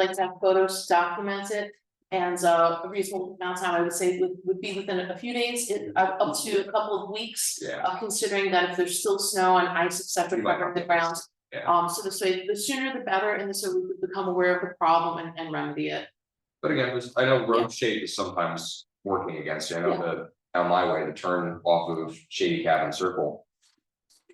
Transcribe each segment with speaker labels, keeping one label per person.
Speaker 1: like to have photos to document it. And uh, a reasonable amount of time, I would say, would, would be within a few days, it- uh, up to a couple of weeks.
Speaker 2: Yeah.
Speaker 1: Uh, considering that if there's still snow and ice, et cetera,
Speaker 2: You might
Speaker 1: covering
Speaker 2: not
Speaker 1: the
Speaker 2: be able to-
Speaker 1: ground.
Speaker 2: yeah.
Speaker 1: Um, so this way, the sooner the better, and so we would become aware of the problem and, and remedy it.
Speaker 2: But again, there's- I know road shape is sometimes working against you, I know the, on my way, the turn off of Shady Cabin Circle.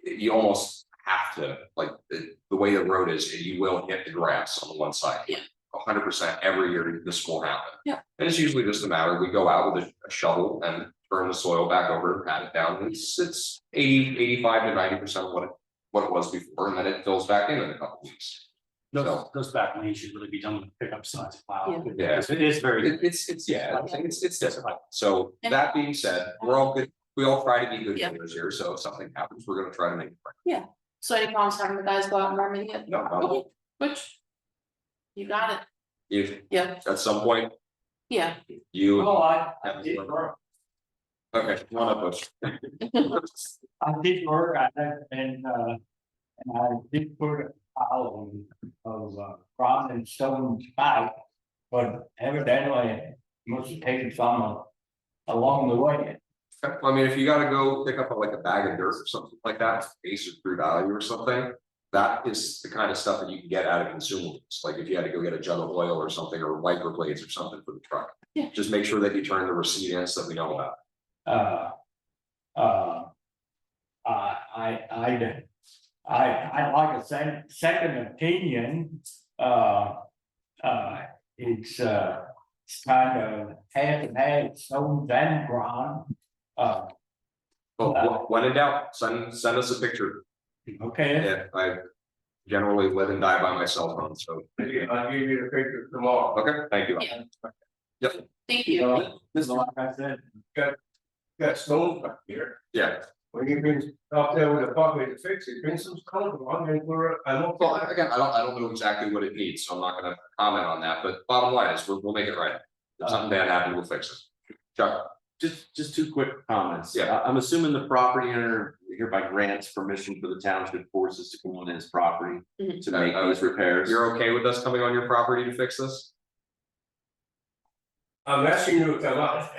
Speaker 2: You almost have to, like, the, the way the road is, you will hit the grass on the one side.
Speaker 1: Yeah.
Speaker 2: A hundred percent every year this will happen.
Speaker 1: Yeah.
Speaker 2: And it's usually just a matter, we go out with a- a shovel and turn the soil back over, pat it down, it's, it's 80, 85 to ninety percent of what it, what it was before, and then it fills back in in a couple weeks.
Speaker 3: Those, those back lanes should really be done with pickup signs. Wow.
Speaker 1: Yeah.
Speaker 2: Yeah.
Speaker 3: It is very.
Speaker 2: It- it's, it's, yeah, it's- it's, it's difficult. So
Speaker 1: And-
Speaker 2: that being said, we're all good, we all try to be good
Speaker 1: Yeah.
Speaker 2: neighbors here, so if something happens, we're gonna try to make. it right.
Speaker 1: So any problems having the guys go out and remedy it?
Speaker 2: No, no,
Speaker 1: Okay, Which? You got it,
Speaker 2: if
Speaker 1: yeah,
Speaker 2: at some point
Speaker 1: yeah.
Speaker 2: you.
Speaker 1: Oh.
Speaker 3: I,
Speaker 2: I did Okay, one up, Butch.
Speaker 3: I did work at that and, uh, and I did put a pile of, uh, rock and stone back. But evidently, it must have taken some uh, along the way.
Speaker 2: I mean, if you gotta go pick up like a bag of dirt or something like that, Ace or True Value or something. That is the kind of stuff that you can get out of consumables, like if you had to go get a jug of oil or something, or wiper blades or something for the truck.
Speaker 1: Yeah.
Speaker 2: Just make sure that you turn the receipt in so that we know about. it.
Speaker 3: uh, uh. I, I, I'd, I, I'd like a sec- second opinion, uh, uh, it's, uh. It's kind of half and half, stones and ground, uh,
Speaker 2: Well,
Speaker 3: Uh,
Speaker 2: wh- when in doubt, send, send us a picture.
Speaker 3: okay,
Speaker 2: Yeah, I generally live and die by my cell phone, so. I'll give you the picture tomorrow. Okay, thank you.
Speaker 1: Yeah.
Speaker 2: Yep,
Speaker 1: Thank you.
Speaker 2: Uh-huh.
Speaker 3: so, this is like I said,
Speaker 4: got stones up here.
Speaker 2: yeah.
Speaker 4: When you bring up there with a bucket to fix it, bring some stone along and we're, I don't.
Speaker 2: Well, I- again, I don't, I don't know exactly what it needs, so I'm not gonna comment on that, but bottom line is, we'll, we'll make it right.
Speaker 5: Uh.
Speaker 2: If something bad happened, we'll fix it. Chuck,
Speaker 5: Just, just two quick comments.
Speaker 2: Yeah.
Speaker 5: I- I'm assuming the property owner hereby grants permission for the township forces to come on his property
Speaker 1: Mhm.
Speaker 5: to make those repairs.
Speaker 2: you're okay with us coming on your property to fix this?
Speaker 4: I'm asking you to come out.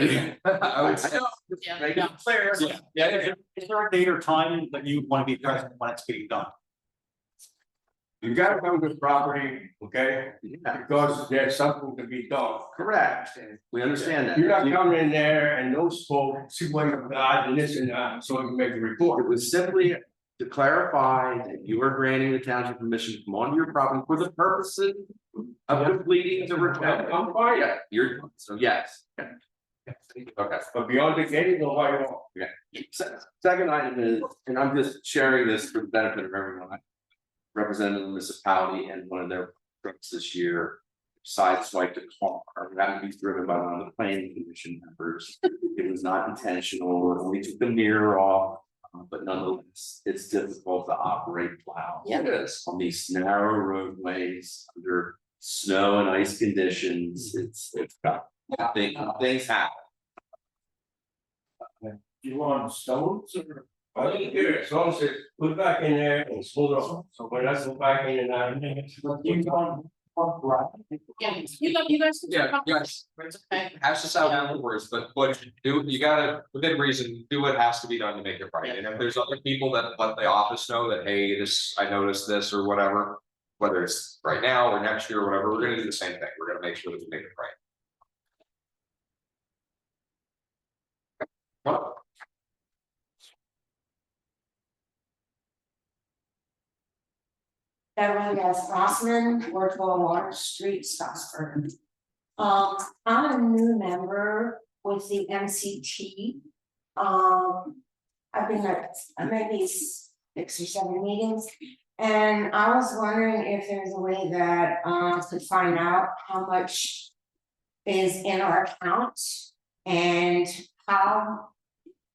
Speaker 2: I would say,
Speaker 1: Yeah.
Speaker 5: Make it clear.
Speaker 2: yeah, yeah, yeah.
Speaker 3: is there a date or time that you want to be present when it's being done?
Speaker 4: You gotta come to the property, okay,
Speaker 5: Yeah,
Speaker 4: because there's something to be done.
Speaker 5: Correct. We understand that.
Speaker 4: You're not coming in there and those folks, see what you've got and this and that, so you make a report.
Speaker 5: It was simply to clarify that you are granting the township permission to come onto your property for the purposes of completing the repair.
Speaker 4: I'm fine, yeah,
Speaker 5: You're, so yes.
Speaker 2: okay,
Speaker 4: but beyond the gate, nobody wants.
Speaker 5: Se- Second item is, and I'm just sharing this for the benefit of everyone. I Represented the municipality and one of their trucks this year. Sideswiped a car, that would be driven by one of the planning commission members. It was not intentional, it only took the mirror off. uh, But nonetheless, it's difficult to operate plow
Speaker 1: Yeah.
Speaker 2: it is.
Speaker 5: on these narrow roadways under snow and ice conditions. It's, it's tough. Things, things happen.
Speaker 4: You want stones or? I don't care, as long as it's put back in there and slow down, so when I go back in and out.
Speaker 3: You don't want gravel?
Speaker 1: Yeah, you guys, you guys. can
Speaker 2: Yeah,
Speaker 1: talk.
Speaker 2: yes.
Speaker 1: It's okay.
Speaker 2: hash this out afterwards, but but do, you gotta, within reason, do what has to be done to make it right, and if there's other people that let the office know that, hey, this, I noticed this or whatever. Whether it's right now or next year or whatever, we're gonna do the same thing, we're gonna make sure that we make it right. Well,
Speaker 6: Beverly as Rossman, Wardwell Water Street, Scottsburg. Um, I'm a new member with the MCT. Um, I've been at uh, maybe s- six or seven meetings. And I was wondering if there's a way that um could find out how much is in our account and how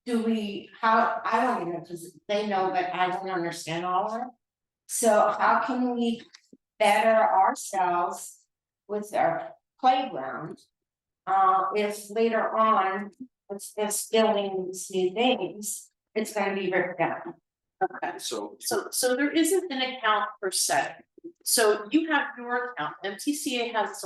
Speaker 6: do we, how, I don't even, because they know, but I don't understand all of it. So how can we better ourselves with our playground? Uh, if later on, if this building these new things, it's gonna be ripped down.
Speaker 1: Okay.
Speaker 5: So
Speaker 1: So, so there isn't an account per se. so you have your account, MTCA has its